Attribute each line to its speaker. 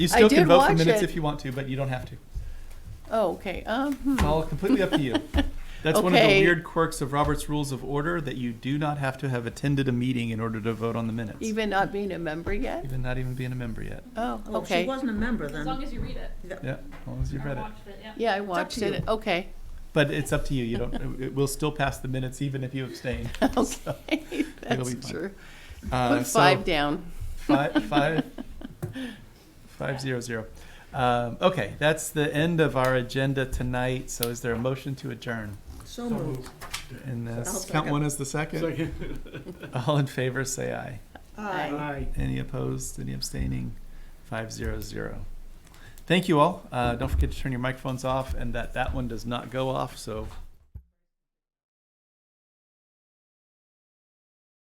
Speaker 1: You still
Speaker 2: did
Speaker 1: can vote for
Speaker 2: watch
Speaker 1: minutes
Speaker 2: it.
Speaker 1: if you want to, but you don't have to.
Speaker 2: Oh, okay, um, hmm.
Speaker 1: It's all completely up to you. That's one of the
Speaker 2: Okay.
Speaker 1: weird quirks of Robert's Rules of Order that you do not have to have attended a meeting in order to vote on the minutes.
Speaker 2: even not being a member yet?
Speaker 1: Even not even being a member yet.
Speaker 2: Oh,
Speaker 3: Oh, she
Speaker 2: okay.
Speaker 3: wasn't a member
Speaker 4: As
Speaker 3: then.
Speaker 4: long as you read it.
Speaker 1: Yeah, as long as you
Speaker 4: I
Speaker 1: read it.
Speaker 4: watched it, yeah.
Speaker 2: Yeah, I watched
Speaker 3: to
Speaker 2: it,
Speaker 3: you.
Speaker 2: okay,
Speaker 1: But it's up to you. You don't. it- It will still pass the minutes even if you abstain.
Speaker 2: okay,
Speaker 1: be
Speaker 2: that's
Speaker 1: fine.
Speaker 2: true.
Speaker 1: Uh,
Speaker 2: Put
Speaker 1: so-
Speaker 2: five down.
Speaker 1: Five, five, five zero zero. Um, okay, that's the end of our agenda tonight. So is there a motion to adjourn?
Speaker 3: So moved.
Speaker 1: And
Speaker 3: I'll
Speaker 1: that's, count
Speaker 3: second.
Speaker 1: one as the second. All in favor, say aye.
Speaker 2: Aye.
Speaker 1: Any opposed, any abstaining? Five zero zero. Thank you all. Uh, don't forget to turn your microphones off and that, that one does not go off, so